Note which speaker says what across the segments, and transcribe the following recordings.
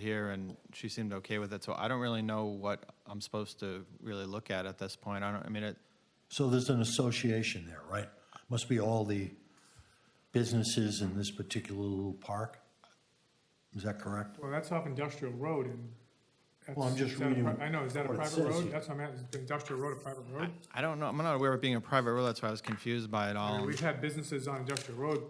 Speaker 1: here and she seemed okay with it, so I don't really know what I'm supposed to really look at at this point. I don't, I mean, it,
Speaker 2: So there's an association there, right? Must be all the businesses in this particular little park? Is that correct?
Speaker 3: Well, that's off Industrial Road and. that's-
Speaker 2: Well, I'm just
Speaker 3: is that a pri-
Speaker 2: reading
Speaker 3: I know, is that a
Speaker 2: what it
Speaker 3: private
Speaker 2: says
Speaker 3: road?
Speaker 2: here.
Speaker 3: That's what I'm at, is Industrial Road a private road?
Speaker 1: I don't know, I'm not aware of being a private road, that's why I was confused by it
Speaker 3: I mean,
Speaker 1: all.
Speaker 3: We've
Speaker 4: um,
Speaker 3: had businesses on Industrial Road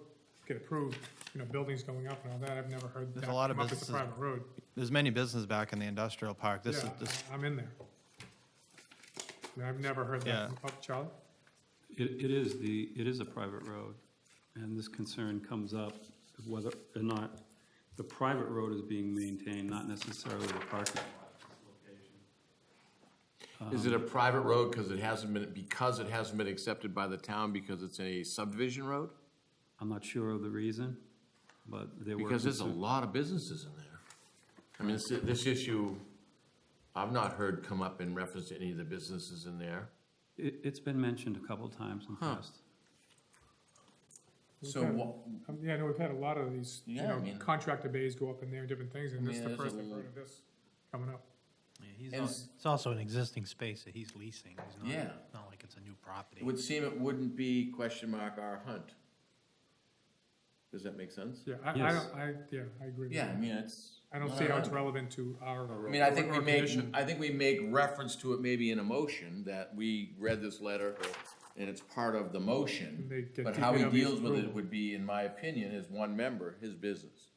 Speaker 3: get approved, you know, buildings going up and all that. I've never heard that
Speaker 1: a lot of
Speaker 3: come up as a
Speaker 1: businesses-
Speaker 3: private road.
Speaker 1: There's many businesses back in the industrial park, this is,
Speaker 3: Yeah,
Speaker 1: this,
Speaker 3: I- I'm in there. I mean, I've never heard
Speaker 1: Yeah.
Speaker 3: that from up Charlie.
Speaker 5: It, it is the, it is a private road, and this concern comes up of whether or not the private road is being maintained, not necessarily the parking.
Speaker 4: Is it a private road because it hasn't been, because it hasn't been accepted by the town because it's a subdivision road?
Speaker 5: I'm not sure of the reason, but they were.
Speaker 4: Because there's a
Speaker 5: concerned-
Speaker 4: lot of businesses in there. I mean, this, this issue, I've not heard come up in reference to any of the businesses in there.
Speaker 5: It, it's been mentioned a couple times in the past.
Speaker 4: So what,
Speaker 3: Um, Yeah, I know, we've had a lot of these, you
Speaker 4: Yeah, I
Speaker 3: know,
Speaker 4: mean-
Speaker 3: contractor bays go up in there and different things, and this is
Speaker 4: mean,
Speaker 3: the
Speaker 4: there's
Speaker 3: first
Speaker 4: a
Speaker 3: I've heard
Speaker 4: little-
Speaker 3: of this coming up.
Speaker 4: and
Speaker 6: It's it's also an existing space that he's leasing. It's not-
Speaker 4: Yeah.
Speaker 6: Not like it's a new property.
Speaker 4: it would seem it wouldn't be question mark our hunt. Does that make sense?
Speaker 3: Yeah, I, I
Speaker 5: Yes.
Speaker 3: don't, I, yeah, I agree. with
Speaker 4: Yeah, I
Speaker 3: you.
Speaker 4: mean, it's.
Speaker 3: I don't see how it's relevant to our.
Speaker 4: I mean, I think we make, I think we make reference to it maybe in a motion, that we read this letter, and it's part of the
Speaker 3: They
Speaker 4: motion.
Speaker 3: get
Speaker 4: But how he
Speaker 3: DPW's
Speaker 4: deals with it
Speaker 3: approval.
Speaker 4: would be, in my opinion, as one member, his business.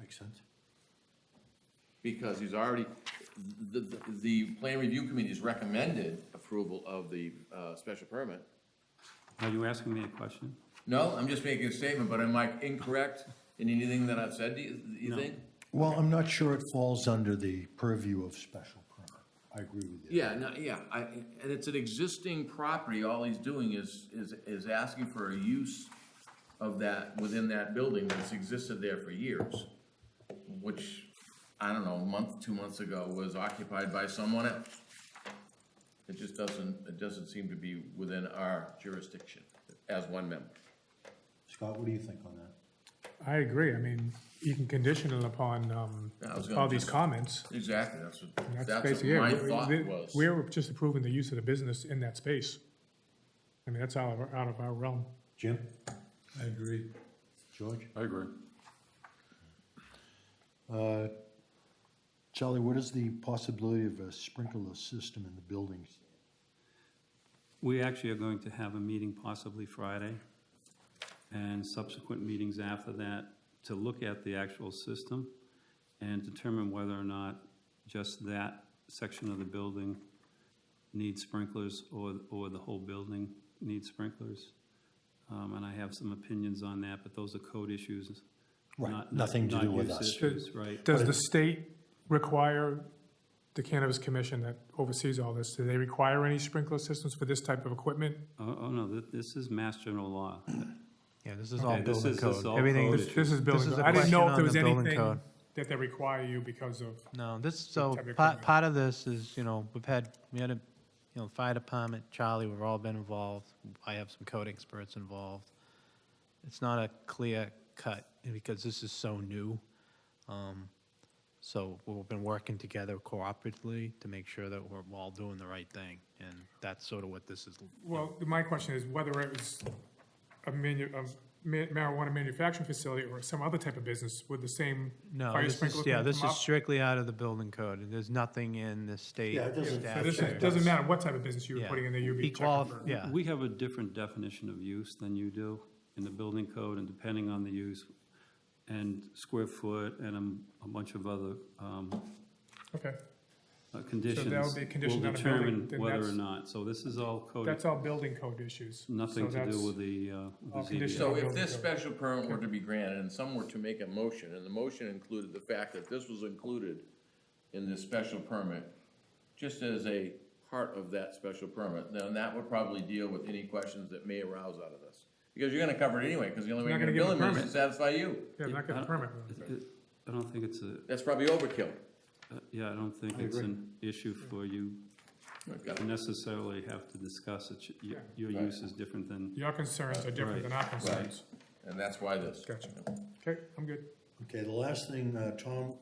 Speaker 2: Makes sense.
Speaker 4: Because he's already, the, the, the plan review committee's recommended approval of the, uh, special permit.
Speaker 5: Are you asking me a question?
Speaker 4: No, I'm just making a statement, but am I incorrect in anything that I've said, do you, do you think?
Speaker 2: Well, I'm not sure it falls under the purview of special permit. I agree with you.
Speaker 4: Yeah, no, yeah, I, and it's an existing property, all he's doing is, is, is asking for a use of that, within that building that's existed there for years, which, I don't know, a month, two months ago was occupied by someone else. It just doesn't, it doesn't seem to be within our jurisdiction as one member.
Speaker 2: Scott, what do you think on that?
Speaker 3: I agree. I mean, you can condition it upon, um,
Speaker 4: Yeah, I was gonna
Speaker 3: all these
Speaker 4: just-
Speaker 3: comments.
Speaker 4: Exactly, that's
Speaker 3: and
Speaker 4: what,
Speaker 3: That's
Speaker 4: that's
Speaker 3: basically it.
Speaker 4: what my
Speaker 3: We-
Speaker 4: thought
Speaker 3: we-
Speaker 4: was.
Speaker 3: We're just approving the use of the business in that space. I mean, that's out of, our- out of our realm.
Speaker 2: Jim?
Speaker 5: I agree.
Speaker 2: George?
Speaker 5: I agree.
Speaker 2: Uh, Charlie, what is the possibility of a sprinkler system in the buildings?
Speaker 5: We actually are going to have a meeting possibly Friday and subsequent meetings after that to look at the actual system and determine whether or not just that section of the building needs sprinklers or, or the whole building needs sprinklers. Um, and I have some opinions on that, but those are code issues.
Speaker 2: Right,
Speaker 5: not-
Speaker 2: nothing to
Speaker 5: not
Speaker 2: do with
Speaker 5: use
Speaker 2: us.
Speaker 5: issues, Right.
Speaker 3: Does the state require the Cannabis Commission that oversees all this, do they require any sprinkler systems for this type of equipment?
Speaker 5: Oh, oh, no, th- this is mass general law.
Speaker 6: Yeah, this is all
Speaker 5: Okay, this
Speaker 6: building
Speaker 5: is- this is
Speaker 6: code.
Speaker 5: all
Speaker 6: Everything,
Speaker 5: code
Speaker 6: is-
Speaker 3: This is building,
Speaker 6: This is a
Speaker 3: I didn't know
Speaker 6: question
Speaker 3: if there
Speaker 6: on
Speaker 3: was
Speaker 6: the building
Speaker 3: anything
Speaker 6: code.
Speaker 3: that they require you because of,
Speaker 6: no, this, so
Speaker 3: type of
Speaker 6: part,
Speaker 3: equipment.
Speaker 6: part of this is, you know, we've had, we had a, you know, fire department, Charlie, we've all been involved. I have some code experts involved. It's not a clear cut because this is so new. Um, So we've been working together cooperatively to make sure that we're all doing the right thing. And that's sort of what this is
Speaker 3: well, my question is whether it was a manu, a ma- marijuana manufacturing facility or some other type of business with the same
Speaker 6: No,
Speaker 3: fire
Speaker 6: this
Speaker 3: sprinkler
Speaker 6: is,
Speaker 3: thing
Speaker 6: yeah, this
Speaker 3: come
Speaker 6: is
Speaker 3: up?
Speaker 6: strictly out of the building code, and there's nothing in the state.
Speaker 2: Yeah, it doesn't
Speaker 6: statute.
Speaker 3: So this
Speaker 2: affect
Speaker 3: is- doesn't matter what type of business you were
Speaker 6: Yeah.
Speaker 3: putting in there, you'd be
Speaker 6: He
Speaker 3: checking for.
Speaker 6: qualif- Yeah,
Speaker 5: We have a different definition of use than you do in the building code, and depending on the use, and square foot, and a- a bunch of other um,
Speaker 3: Okay,
Speaker 5: uh, conditions.
Speaker 3: be conditioned on a building,
Speaker 5: Will
Speaker 3: then
Speaker 5: determine whether or
Speaker 3: that's-
Speaker 5: not, so this is all code,
Speaker 3: that's all building code issues.
Speaker 5: nothing
Speaker 3: So
Speaker 5: to do
Speaker 3: that's-
Speaker 5: with the, uh, with
Speaker 3: all
Speaker 5: the
Speaker 3: conditions.
Speaker 5: ZBA.
Speaker 4: So if this special permit were to be granted and some were to make a motion, and the motion included the fact that this was included in this special permit, just as a part of that special permit, then that would probably deal with any questions that may arouse out of this. Because you're gonna cover it anyway, because the only way you're
Speaker 3: Not
Speaker 4: gonna
Speaker 3: gonna
Speaker 4: bill
Speaker 3: give a
Speaker 4: him
Speaker 3: permit.
Speaker 4: is to satisfy you.
Speaker 3: Yeah, I'm not getting a permit. with it.
Speaker 5: It- it- I don't think it's a,
Speaker 4: That's probably overkill.
Speaker 5: uh, yeah, I don't think it's an issue for you to necessarily have to discuss it. You- Your
Speaker 4: Right.
Speaker 5: use is different than
Speaker 3: Your concerns are different than our concerns.
Speaker 4: And that's why this.
Speaker 3: Gotcha. Okay, I'm good.
Speaker 2: Okay, the last thing, uh, Tom,